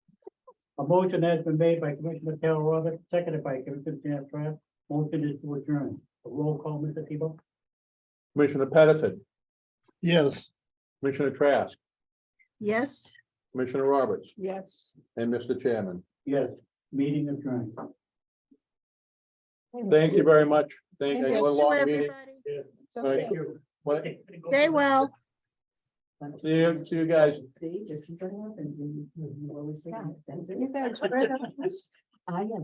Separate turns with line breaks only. A motion has been made by Commissioner Carol Roberts, seconded by Commissioner Sam Trask. Motion is to adjourn. A roll call, Mr. Tebow?
Commissioner Pettison,
Yes.
Commissioner Trask,
Yes.
Commissioner Roberts,
Yes.
and Mr. Chairman.
Yes, meeting adjourned.
Thank you very much. Thank
Thank
you. A
you,
long meeting.
everybody.
Thank
you.
What-
Stay well.
See you, see you guys.
See, this is what happens when you- when you always say.
Yeah.
that. That's it.
You guys read up. I am.